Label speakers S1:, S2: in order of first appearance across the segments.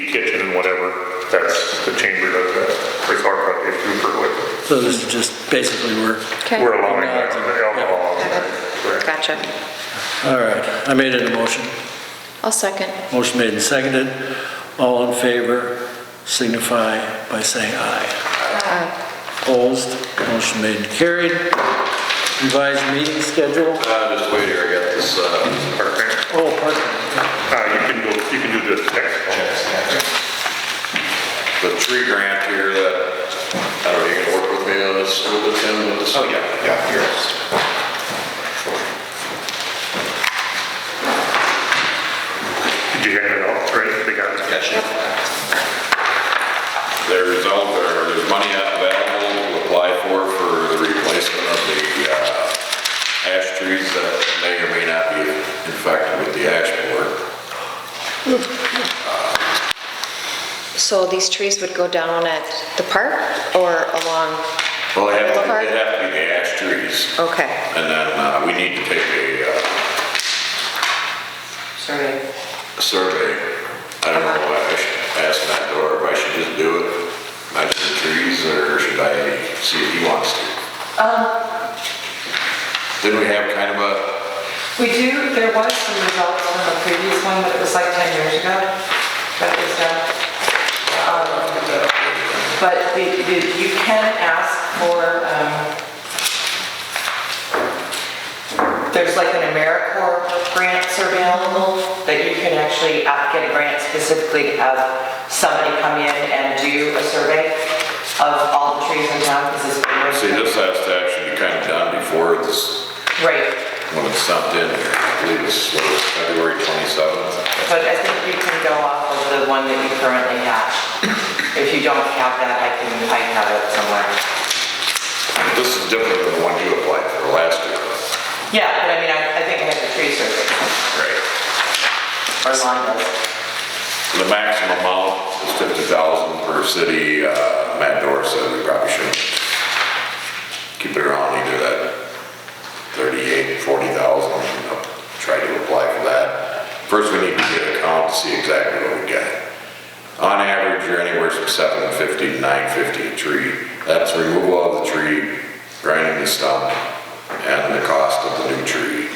S1: the kitchen and whatever, that's the chamber does that, or it's our project, it's Cooper with.
S2: So this is just basically we're,
S3: Okay.
S1: We're allowing that, on the alcohol. Correct.
S3: Gotcha.
S2: all right, I made it a motion.
S3: I'll second.
S2: Motion made and seconded. All in favor signify by saying aye.
S3: Aye.
S2: Opposed, motion made and carried. Revised meeting schedule.
S4: Uh, just wait here, I got this, uh,
S1: Park thing.
S2: Oh, pardon.
S1: Uh, you can go, you can do the text.
S4: the tree grant here that, I don't know, you can work with me on this, with him, with this? Oh, yeah, yeah, here it is.
S1: Did you hand it off, right, they got it?
S4: Gotcha. There's all, there- there's money available to apply for, for the replacement of the uh, ash trees that may or may not be infected with the ash borer.
S3: So these trees would go down at the park or along,
S4: Well, they have, to- they have to be the ash trees,
S3: okay.
S4: and then uh, we need to take a uh,
S3: Sorry.
S4: survey. I don't know, I should ask Matt Dorr if I should just do it, measure the trees, or should I see if he wants to? Didn't we have kind of a
S5: We do, there was some results from the previous one, but it was like 10 years ago that it was done. Um, But the- the- you can ask for, um, there's like an AmeriCorps grant survey available that you can actually uh, get a grant specifically to have somebody come in and do a survey of all the trees in town because it's. been-
S4: See, this has to actually be kind of done before this,
S5: Right.
S4: when it's sent in, I believe it's, what, it's February 27th?
S5: But I think you can go off of the one that you currently have. If you don't have that, I can, I have it somewhere.
S4: This is different than the one you applied for last year.
S5: Yeah, but I mean, I, I think I have the tree survey,
S4: Right.
S5: or lawn does.
S4: The maximum amount is 50,000 per city, uh, Matt Dorr said we probably should keep it around either that 38, 40,000, you know, try to apply for that. First, we need to get a count to see exactly what we got. On average, you're anywhere from 750 to 950 a tree. That's removal of the tree, grinding the stump, and the cost of the new tree,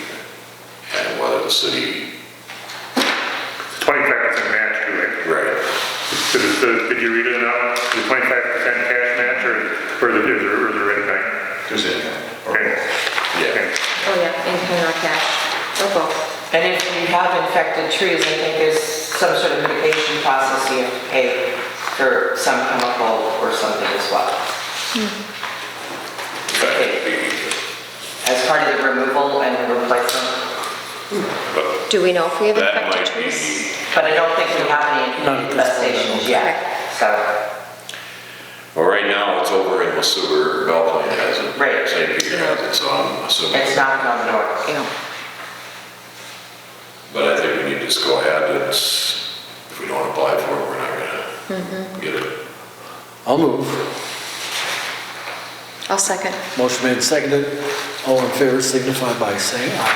S4: and whether the city,
S1: Twenty-five percent match, do it.
S4: right,
S1: Did it- Did did you read it now? The twenty-five percent cash match or, or the, is there, is there anything?
S4: There's income.
S1: Okay.
S4: Yeah.
S1: Okay.
S3: Oh, yeah, in or cash, or both.
S5: And if you have infected trees, I think there's some sort of mitigation process you have to pay for some chemical or something as well.
S4: That'd be easier.
S5: As part of the removal and replacement,
S4: But
S3: Do we know if we have
S4: that
S3: infected
S4: might be,
S3: trees?
S5: but I don't think we have any infestations yet, so.
S4: well, right now, it's over in Masuber, Belplain has it.
S5: Right.
S4: St. Peter has it, so I'm assuming.
S5: It's knocking on the door.
S3: Yeah.
S4: But I think we need to just go ahead, and s if we don't apply for it, we're not
S5: Mm-hmm.
S4: gonna get it.
S2: I'll move.
S3: I'll second.
S2: Motion made and seconded. All in favor signify by saying aye.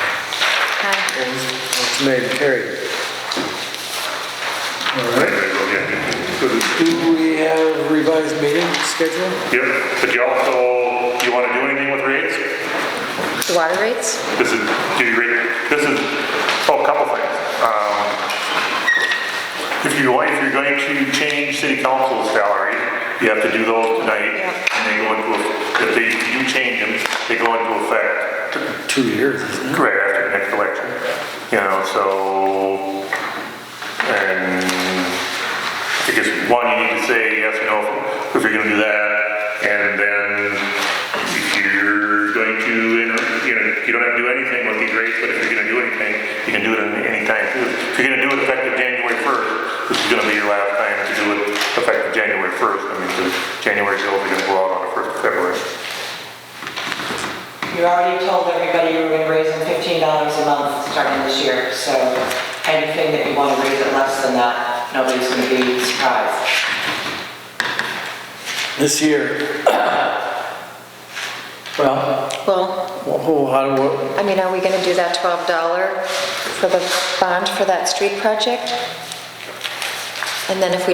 S3: Aye.
S2: Opposed, motion made and carried. All
S1: Right,
S2: right.
S1: there you go, yeah. Good.
S2: Do we have revised meeting schedule?
S1: Yep, but you also, you wanna do anything with rates?
S3: The water rates?
S1: This is, do you read, this is, oh, a couple things. Um, If you want, if you're going to change city council's salary, you have to do those tonight.
S3: Yeah.
S1: And they go into, eff- if they, if you change them, they go into effect
S2: Two years, isn't it?
S1: right after the next election. You know, so, and I guess, one, you need to say yes or no if- if you're gonna do that. And then if you're going to, you know, you know, you don't have to do anything with these rates, but if you're gonna do anything, you can do it at any time. If you're gonna do it effective January first, this is gonna be your last time to do it effective January first. I mean, 'cause January bills are gonna go out on the first of February.
S5: You already told everybody you were gonna raise them fifteen dollars a month starting this year, so anything that you wanna raise it less than that, nobody's gonna be surprised.
S2: This year. Well,
S3: Well,
S2: oh, how do, what,
S3: I mean, are we gonna do that $12 for the bond for that street project? And then if we